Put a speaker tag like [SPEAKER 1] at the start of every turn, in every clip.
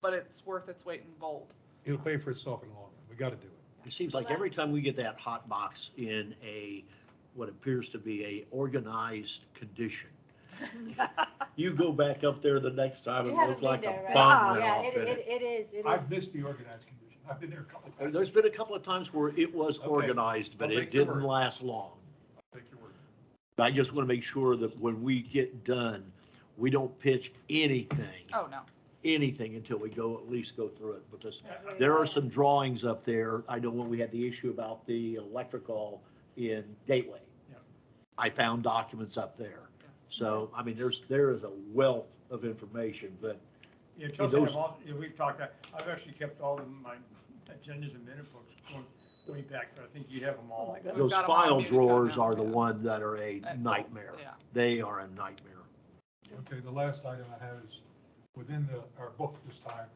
[SPEAKER 1] but it's worth its weight in gold.
[SPEAKER 2] It'll pay for itself in the long run. We got to do it.
[SPEAKER 3] It seems like every time we get that hot box in a, what appears to be a organized condition, you go back up there the next time
[SPEAKER 4] You
[SPEAKER 3] and look
[SPEAKER 4] haven't been
[SPEAKER 3] like
[SPEAKER 4] there,
[SPEAKER 3] a
[SPEAKER 4] right? Oh,
[SPEAKER 3] bomb
[SPEAKER 5] Oh,
[SPEAKER 3] went
[SPEAKER 4] Yeah,
[SPEAKER 3] off
[SPEAKER 4] it,
[SPEAKER 3] in
[SPEAKER 4] it,
[SPEAKER 3] it.
[SPEAKER 4] it is, it
[SPEAKER 2] I've
[SPEAKER 4] is.
[SPEAKER 2] missed the organized condition. I've been there a couple of
[SPEAKER 3] And
[SPEAKER 2] times.
[SPEAKER 3] There's been a couple of times where it was
[SPEAKER 2] Okay.
[SPEAKER 3] organized, but
[SPEAKER 2] I'll
[SPEAKER 3] it
[SPEAKER 2] take your
[SPEAKER 3] didn't
[SPEAKER 2] word.
[SPEAKER 3] last long.
[SPEAKER 2] I'll take your word.
[SPEAKER 3] I just want to make sure that when we get done, we don't pitch anything,
[SPEAKER 1] Oh, no.
[SPEAKER 3] anything until we go, at least go through it, because There are some drawings up there. I know when we had the issue about the electrical in Gateway.
[SPEAKER 2] Yeah.
[SPEAKER 3] I found documents up there.
[SPEAKER 1] Yeah.
[SPEAKER 3] So, I mean, there's, there is a wealth of information, but
[SPEAKER 6] Yeah, Chelsea, I've
[SPEAKER 3] those-
[SPEAKER 6] often, yeah, we've talked, about- I've actually kept all of my agendas and minute books going way back, but I think you have them
[SPEAKER 4] Oh,
[SPEAKER 6] all.
[SPEAKER 1] We've
[SPEAKER 3] those
[SPEAKER 1] got 'em all
[SPEAKER 3] file
[SPEAKER 1] muted right
[SPEAKER 3] drawers
[SPEAKER 1] now,
[SPEAKER 3] are the
[SPEAKER 1] yeah.
[SPEAKER 3] ones that are a
[SPEAKER 1] Uh,
[SPEAKER 3] nightmare.
[SPEAKER 1] Yeah.
[SPEAKER 3] They are a nightmare.
[SPEAKER 2] Okay, the last item I have is, within the, our book this time,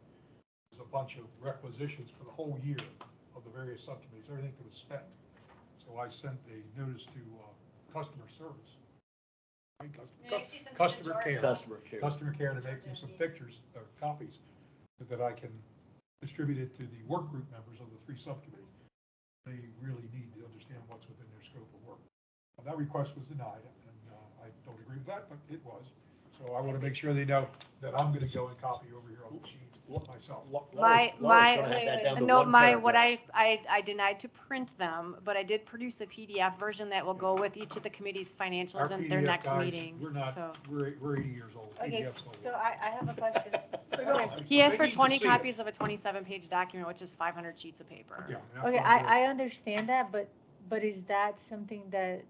[SPEAKER 2] is a bunch of requisitions for the whole year of the various subcommittees, everything that was spent. So I sent the notice to uh, customer service. I mean, cus-
[SPEAKER 4] Yeah, you see some
[SPEAKER 2] Customer
[SPEAKER 4] charge
[SPEAKER 2] care,
[SPEAKER 3] Customer care.
[SPEAKER 2] customer care to make me some pictures or copies that I can distribute it to the work group members of the three subcommittees. They really need to understand what's within their scope of work. Well, That request was denied, and uh, I don't agree with that, but it was. So I want to make sure they know that I'm going to go and copy over here on the sheets myself.
[SPEAKER 4] My,
[SPEAKER 3] Laura's- Laura's
[SPEAKER 4] my,
[SPEAKER 3] gonna have that down to
[SPEAKER 4] no,
[SPEAKER 3] one
[SPEAKER 4] my, what
[SPEAKER 3] paragraph.
[SPEAKER 4] I, I, I denied to print them, but I did produce a PDF version that will go with each of the committee's financials
[SPEAKER 2] Our
[SPEAKER 4] and their
[SPEAKER 2] PDF
[SPEAKER 4] next
[SPEAKER 2] guys,
[SPEAKER 4] meetings,
[SPEAKER 2] We're not,
[SPEAKER 4] so.
[SPEAKER 2] we're, we're 80 years old.
[SPEAKER 4] Okay,
[SPEAKER 2] PDFs don't
[SPEAKER 4] so
[SPEAKER 2] work.
[SPEAKER 4] I, I have a question.
[SPEAKER 2] They don't.
[SPEAKER 4] Okay. He
[SPEAKER 2] They
[SPEAKER 4] asked for
[SPEAKER 2] need to
[SPEAKER 4] twenty
[SPEAKER 2] see it.
[SPEAKER 4] copies of a twenty-seven page document, which is five hundred sheets of paper.
[SPEAKER 2] Yeah, that's
[SPEAKER 5] Okay,
[SPEAKER 2] what I'm doing.
[SPEAKER 5] I, I understand that, but, but is that something that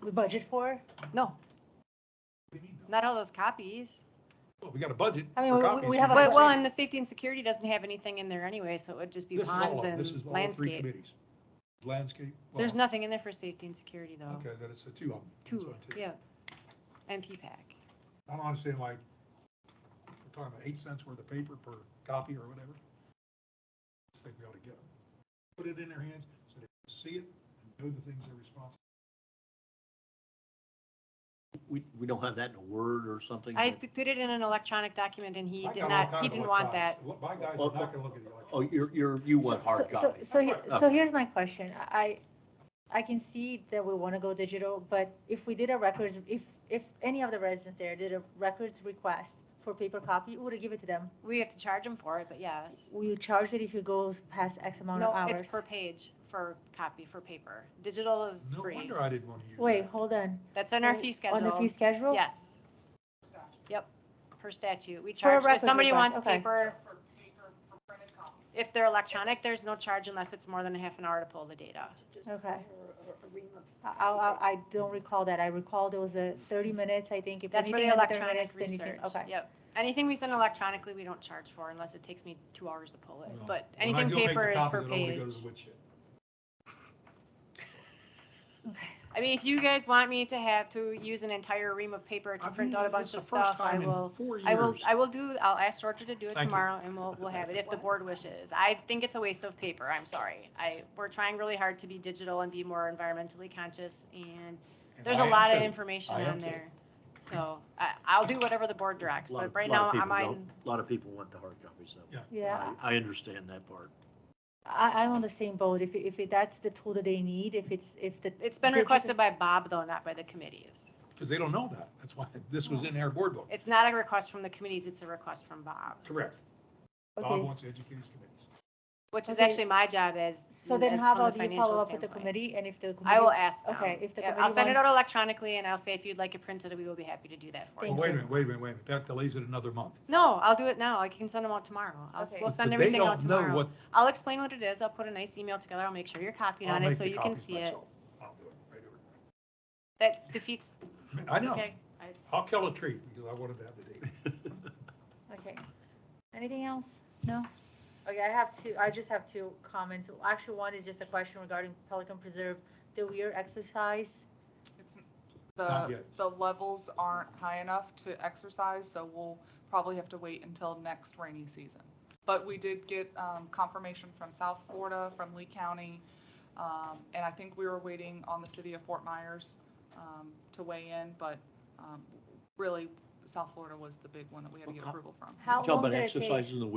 [SPEAKER 5] we budget for?
[SPEAKER 4] No,
[SPEAKER 2] We need them.
[SPEAKER 4] not all those copies.
[SPEAKER 2] Well, We got a budget
[SPEAKER 5] I mean,
[SPEAKER 2] for
[SPEAKER 5] we- we
[SPEAKER 2] copies.
[SPEAKER 5] have a
[SPEAKER 2] need
[SPEAKER 4] Well,
[SPEAKER 2] to
[SPEAKER 4] well,
[SPEAKER 2] see it.
[SPEAKER 4] and the safety and security doesn't have anything in there anyway, so it would just be
[SPEAKER 2] This is all of
[SPEAKER 4] ponds
[SPEAKER 2] them. This is all
[SPEAKER 4] and
[SPEAKER 2] the three
[SPEAKER 4] landscape.
[SPEAKER 2] committees. Landscape. well,
[SPEAKER 4] There's nothing in there for safety and security though.
[SPEAKER 2] Okay, then it's the two of them. That's
[SPEAKER 4] Two,
[SPEAKER 2] what I take.
[SPEAKER 4] yeah. And P-PAC.
[SPEAKER 2] I don't understand why, we're talking about eight cents worth of paper per copy or whatever. I just think we ought to get them, put it in their hands so they can see it and know the things they're responsible.
[SPEAKER 3] We, we don't have that in a word or something?
[SPEAKER 4] I put it in an electronic document and he
[SPEAKER 2] I
[SPEAKER 4] did
[SPEAKER 2] got all
[SPEAKER 4] not,
[SPEAKER 2] kinds
[SPEAKER 4] he
[SPEAKER 2] of
[SPEAKER 4] didn't want that.
[SPEAKER 2] electronics. Look, My guys are not gonna look at the
[SPEAKER 3] Oh,
[SPEAKER 2] electronics.
[SPEAKER 3] you're, you're, you want hard
[SPEAKER 5] So- so-
[SPEAKER 3] copies.
[SPEAKER 5] So, he- so
[SPEAKER 3] Okay.
[SPEAKER 5] here's my question. I, I can see that we want to go digital, but if we did a records, if, if any of the residents there did a records request for paper copy, we would give it to them.
[SPEAKER 4] We have to charge him for it, but yes.
[SPEAKER 5] Will you charge it if it goes past X amount of
[SPEAKER 4] No,
[SPEAKER 5] hours?
[SPEAKER 4] it's per page for copy, for paper. Digital is
[SPEAKER 2] No
[SPEAKER 4] free.
[SPEAKER 2] wonder I didn't wanna use
[SPEAKER 5] Wait,
[SPEAKER 2] that.
[SPEAKER 5] hold on.
[SPEAKER 4] That's in our fee
[SPEAKER 5] Oh, On the fee
[SPEAKER 4] schedule.
[SPEAKER 5] schedule?
[SPEAKER 4] Yes, yep, per statute. We
[SPEAKER 5] For a
[SPEAKER 4] charge, if
[SPEAKER 5] records
[SPEAKER 4] somebody
[SPEAKER 5] request,
[SPEAKER 4] wants
[SPEAKER 5] okay.
[SPEAKER 4] paper,
[SPEAKER 1] For paper, for printed copies.
[SPEAKER 4] if they're electronic, there's no charge unless it's more than a half an hour to pull the data.
[SPEAKER 5] Okay. I, I, I don't recall that. I recall there was a thirty minutes, I think. If
[SPEAKER 4] That's for
[SPEAKER 5] anything
[SPEAKER 4] the
[SPEAKER 5] under 30 minutes,
[SPEAKER 4] electronic
[SPEAKER 5] then you can-
[SPEAKER 4] research.
[SPEAKER 5] Okay.
[SPEAKER 4] Yep. Anything we send electronically, we don't charge for unless it takes me two hours to pull it,
[SPEAKER 2] Well,
[SPEAKER 4] but
[SPEAKER 2] When I
[SPEAKER 4] anything
[SPEAKER 2] go make the
[SPEAKER 4] paper is
[SPEAKER 2] copies,
[SPEAKER 4] per
[SPEAKER 2] it only
[SPEAKER 4] page.
[SPEAKER 2] goes to the wood chip.
[SPEAKER 4] I mean, if you guys want me to have to use an entire ream of paper to
[SPEAKER 2] I've
[SPEAKER 4] print
[SPEAKER 2] used
[SPEAKER 4] out a
[SPEAKER 2] it- it's
[SPEAKER 4] bunch
[SPEAKER 2] the
[SPEAKER 4] of
[SPEAKER 2] first
[SPEAKER 4] stuff, I
[SPEAKER 2] time in
[SPEAKER 4] will,
[SPEAKER 2] four
[SPEAKER 4] I will,
[SPEAKER 2] years.
[SPEAKER 4] I will do, I'll ask Georgia to do it
[SPEAKER 2] Thank you.
[SPEAKER 4] tomorrow and we'll, we'll have it if the board wishes. I think it's a waste of paper, I'm sorry. I, we're trying really hard to be digital and be more environmentally conscious and
[SPEAKER 2] And
[SPEAKER 4] there's
[SPEAKER 2] I
[SPEAKER 4] a
[SPEAKER 2] am
[SPEAKER 4] lot of
[SPEAKER 2] too.
[SPEAKER 4] information
[SPEAKER 2] I am
[SPEAKER 4] on
[SPEAKER 2] too.
[SPEAKER 4] there. So I, I'll do whatever the board directs,
[SPEAKER 3] Lot
[SPEAKER 4] but
[SPEAKER 3] of-
[SPEAKER 4] right
[SPEAKER 3] lot
[SPEAKER 4] now
[SPEAKER 3] of people
[SPEAKER 4] I'm,
[SPEAKER 3] don't- A lot of people want the hard copies though.
[SPEAKER 2] Yeah.
[SPEAKER 5] Yeah,
[SPEAKER 3] I, I understand that part.
[SPEAKER 5] I, I'm on the same boat. If, if it- that's the tool that they need, if it's, if the.
[SPEAKER 4] it's been
[SPEAKER 5] digital-
[SPEAKER 4] requested by Bob though, not by the committees.
[SPEAKER 2] Cause they don't know that. That's why this was in our board book.
[SPEAKER 4] It's not a request from the committees, it's a request from Bob,
[SPEAKER 2] Correct. Bob
[SPEAKER 5] Okay,
[SPEAKER 2] wants to educate his committees.
[SPEAKER 4] which is
[SPEAKER 5] Okay.
[SPEAKER 4] actually my job as.
[SPEAKER 5] so then
[SPEAKER 4] as
[SPEAKER 5] how
[SPEAKER 4] from the
[SPEAKER 5] about you
[SPEAKER 4] financial
[SPEAKER 5] follow up with the
[SPEAKER 4] standpoint.
[SPEAKER 5] committee and if the.
[SPEAKER 4] I will
[SPEAKER 5] committee-
[SPEAKER 4] ask them.
[SPEAKER 5] Okay, if the
[SPEAKER 4] Yeah, I'll
[SPEAKER 5] committee
[SPEAKER 4] send it out
[SPEAKER 5] wants-
[SPEAKER 4] electronically and I'll say if you'd like it printed, we will be happy to do that for
[SPEAKER 2] Well,
[SPEAKER 5] Thank
[SPEAKER 4] you.
[SPEAKER 2] Oh, wait a
[SPEAKER 5] you.
[SPEAKER 2] minute, wait a minute, wait a minute. That delays it another month.
[SPEAKER 4] No, I'll do it now. I can send them out tomorrow. I'll,
[SPEAKER 1] Okay.
[SPEAKER 4] we'll
[SPEAKER 2] But
[SPEAKER 4] send
[SPEAKER 2] they
[SPEAKER 4] everything out
[SPEAKER 2] don't know
[SPEAKER 4] tomorrow.
[SPEAKER 2] what-
[SPEAKER 4] I'll explain what it is. I'll put a nice email together. I'll make sure you're copied
[SPEAKER 2] I'll
[SPEAKER 4] on it
[SPEAKER 2] make
[SPEAKER 4] so
[SPEAKER 2] the
[SPEAKER 4] you can
[SPEAKER 2] copies
[SPEAKER 4] see it.
[SPEAKER 2] myself. I'll do it right over.
[SPEAKER 4] That defeats,
[SPEAKER 2] I know.
[SPEAKER 4] okay. I-
[SPEAKER 2] I'll kill a tree because I wanted to have the date.
[SPEAKER 5] Okay. Anything else? No? Okay, I have two, I just have two comments. Actually, one is just a question regarding Pelican Preserve, the weir exercise.
[SPEAKER 1] It's,
[SPEAKER 2] Not
[SPEAKER 1] the,
[SPEAKER 2] yet.
[SPEAKER 1] the levels aren't high enough to exercise, so we'll probably have to wait until next rainy season. But we did get um, confirmation from South Florida, from Lee County, um, and I think we were waiting on the city of Fort Myers um, to weigh in, but um, really, South Florida was the big one that we had to get approval from.
[SPEAKER 5] How
[SPEAKER 3] Talk
[SPEAKER 5] long
[SPEAKER 3] about
[SPEAKER 5] did it take?
[SPEAKER 3] exercises in the